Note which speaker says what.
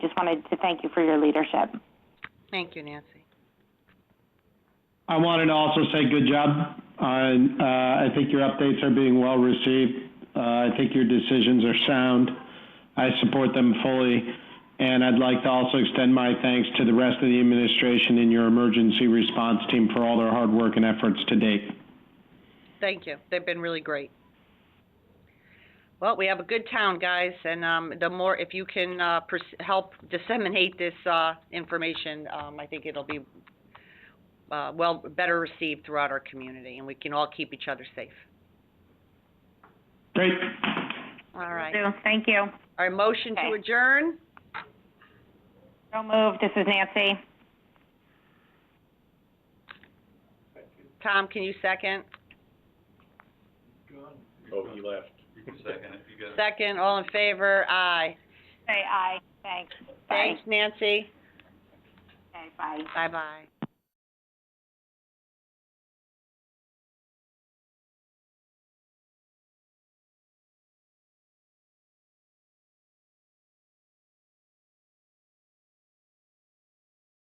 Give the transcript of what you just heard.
Speaker 1: wanted to thank you for your leadership.
Speaker 2: Thank you, Nancy.
Speaker 3: I wanted to also say good job. on, uh, I think your updates are being well received. Uh, I think your decisions are sound. I support them fully. And I'd like to also extend my thanks to the rest of the administration and your emergency response team for all their hard work and efforts to date.
Speaker 2: Thank you. They've been really great. Well, we have a good town, guys, and, um, the more, if you can, uh, pers- help disseminate this, uh, information, um, I think it'll be, uh, well, better received throughout our community, and we can all keep each other safe.
Speaker 3: Great.
Speaker 2: All right.
Speaker 1: So, Thank you.
Speaker 2: Our motion to
Speaker 1: Okay.
Speaker 2: adjourn?
Speaker 1: So moved. This is Nancy.
Speaker 2: Tom, can you second?
Speaker 4: Oh, he left. You can second it, you
Speaker 2: Second, all in favor? Aye.
Speaker 1: Say aye. Thanks. Bye.
Speaker 2: Thanks, Nancy.
Speaker 1: Okay, bye.
Speaker 2: Bye-bye.